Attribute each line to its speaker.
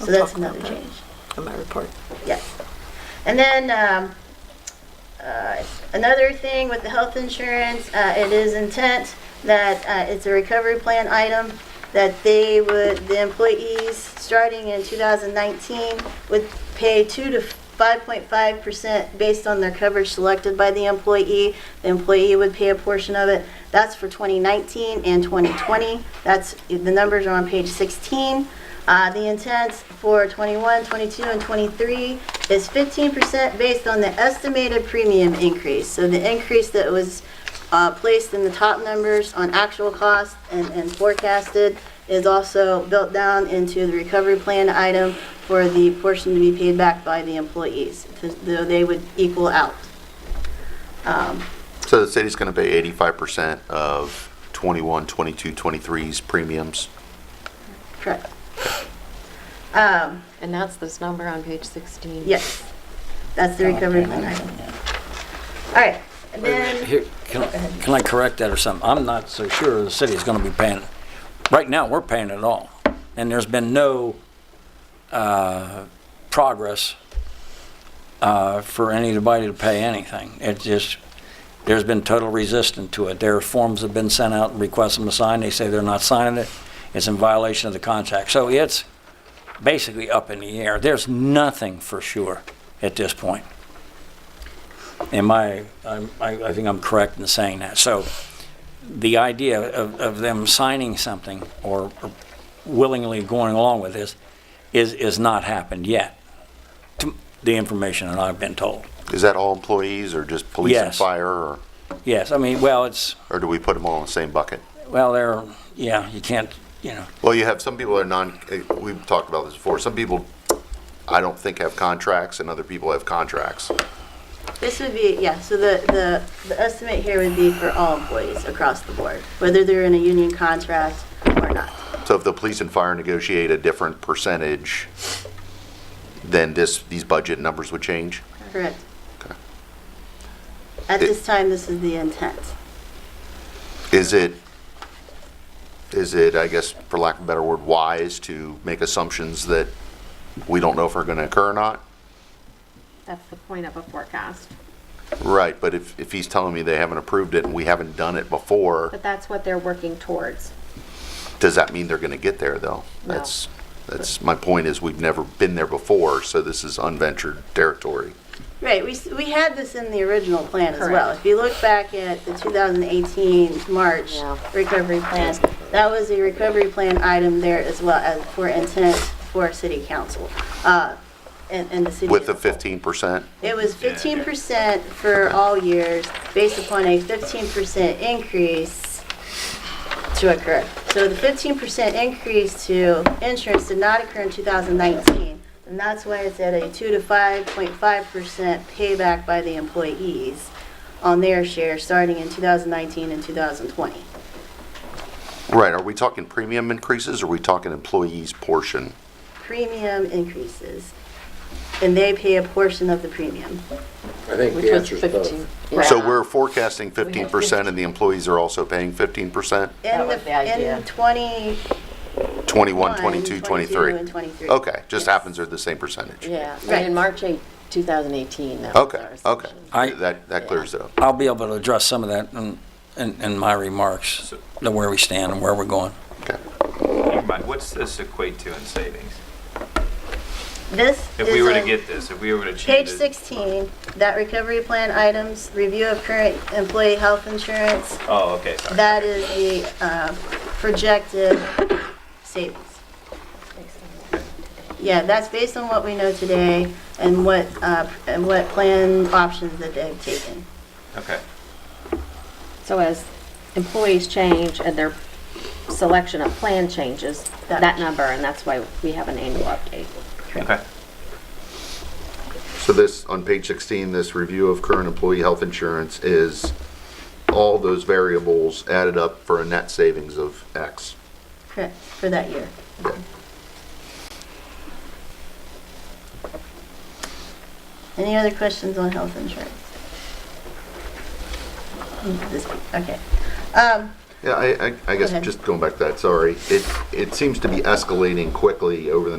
Speaker 1: I'll
Speaker 2: So that's
Speaker 1: talk about
Speaker 2: another
Speaker 1: that
Speaker 2: change.
Speaker 1: On my report.
Speaker 2: Yes. And then um, uh, another thing with the health insurance, uh, it is intent that uh, it's a recovery plan item, that they would, the employees, starting in 2019, would pay 2 to 5.5% based on their coverage selected by the employee. The employee would pay a portion of it. That's for 2019 and 2020. That's, the numbers are on page 16. Uh, The intent for 21, 22, and 23 is 15% based on the estimated premium increase. So the increase that was uh, placed in the top numbers on actual cost and and forecasted is also built down into the recovery plan item for the portion to be paid back by the employees, though they would equal out.
Speaker 3: So the city's going to pay 85% of 21, 22, 23's premiums?
Speaker 2: Correct?
Speaker 4: And that's this number on page 16.
Speaker 2: Yes. That's the recovery plan item. All right, and then...
Speaker 5: Here, can I, can I correct that or something? I'm not so sure the city's gonna be paying, right now, we're paying it all. And there's been no, uh, progress, uh, for anybody to pay anything. It just, there's been total resistance to it. Their forms have been sent out, and requests them to sign, they say they're not signing it. It's in violation of the contract. So it's basically up in the air. There's nothing for sure at this point. Am I, I'm- I, I think I'm correct in saying that. So the idea of, of them signing something or or willingly going along with this is, is not happened yet. to The information that I've been told.
Speaker 3: Is that all employees or just police and
Speaker 5: Yes.
Speaker 3: fire? Or,
Speaker 5: Yes, I mean, well, it's,
Speaker 3: or do we put them all in the same bucket?
Speaker 5: well, they're, yeah, you can't, you know,
Speaker 3: Well, you have, some people are non, eh, we've talked about this before. Some people, I don't think have contracts and other people have contracts.
Speaker 2: This would be, yeah, so the, the, the estimate here would be for all employees across the board, whether they're in a union contract or not.
Speaker 3: So if the police and fire negotiate a different percentage, then this, these budget numbers would change?
Speaker 2: Correct? At this time, this is the intent.
Speaker 3: Is it, is it, I guess, for lack of a better word, wise to make assumptions that we don't know if are going to occur or not?
Speaker 4: That's the point of a forecast.
Speaker 3: Right, but if, if he's telling me they haven't approved it and we haven't done it before,
Speaker 4: But that's what they're working towards.
Speaker 3: does that mean they're going to get there, though?
Speaker 4: No.
Speaker 3: That's, that's, my point is, we've never been there before, so this is unventured territory.
Speaker 2: Right, we, s- we had this in the original plan as well.
Speaker 4: Correct.
Speaker 2: If you look back at the 2018 March
Speaker 4: Yeah.
Speaker 2: recovery plan, that was a recovery plan item there as well as for intent for city council, uh, and, and the city.
Speaker 3: With the
Speaker 2: as a whole.
Speaker 3: 15%?
Speaker 2: It was fifteen percent for all years, based upon a fifteen percent increase to occur. So the fifteen percent increase to insurance did not occur in two thousand nineteen, and that's why it's at a two to five point five percent payback by the employees on their share, starting in two thousand nineteen and two thousand twenty.
Speaker 3: Right, are we talking premium increases, or are we talking employees' portion?
Speaker 2: Premium increases, and they pay a portion of the premium.
Speaker 6: I think
Speaker 4: Which
Speaker 6: the
Speaker 4: was
Speaker 6: answer's
Speaker 4: 15.
Speaker 6: both.
Speaker 3: So
Speaker 4: Yeah.
Speaker 3: we're forecasting 15% and the employees are also paying 15%?
Speaker 2: In
Speaker 4: was the
Speaker 2: the,
Speaker 4: idea.
Speaker 2: in twenty
Speaker 3: 21,
Speaker 2: One,
Speaker 3: 22,
Speaker 2: 22,
Speaker 3: 23?
Speaker 2: and 23.
Speaker 3: Okay, just
Speaker 2: Yes.
Speaker 3: happens they're the same percentage?
Speaker 6: Yeah,
Speaker 2: Right.
Speaker 6: and in March 8, 2018, that was
Speaker 3: Okay,
Speaker 6: our
Speaker 3: okay.
Speaker 6: assumption.
Speaker 5: I-
Speaker 3: That, that clears it up.
Speaker 5: I'll be able to address some of that in, in, in my remarks, the where we stand and where we're going.
Speaker 3: Okay.
Speaker 7: Never mind. What's this equate to in savings?
Speaker 2: This
Speaker 7: If we were to
Speaker 2: is a-
Speaker 7: get this, if we were to
Speaker 2: Page
Speaker 7: change it-
Speaker 2: 16, that recovery plan items, review of current employee health insurance,
Speaker 7: Oh, okay, sorry.
Speaker 2: that is the uh, projected savings. Yeah, that's based on what we know today and what, uh, and what plan options that they've taken.
Speaker 7: Okay.
Speaker 4: So as employees change and their selection of plan changes,
Speaker 2: That-
Speaker 4: that number, and that's why we have an annual update.
Speaker 7: Okay.
Speaker 3: So this, on page 16, this review of current employee health insurance is all those variables added up for a net savings of X.
Speaker 2: Correct, for that year. Any other questions on health insurance? This- Okay. Um,
Speaker 3: Yeah, I, I, I guess
Speaker 2: ahead.
Speaker 3: just going back to that, sorry, it, it seems to be escalating quickly over the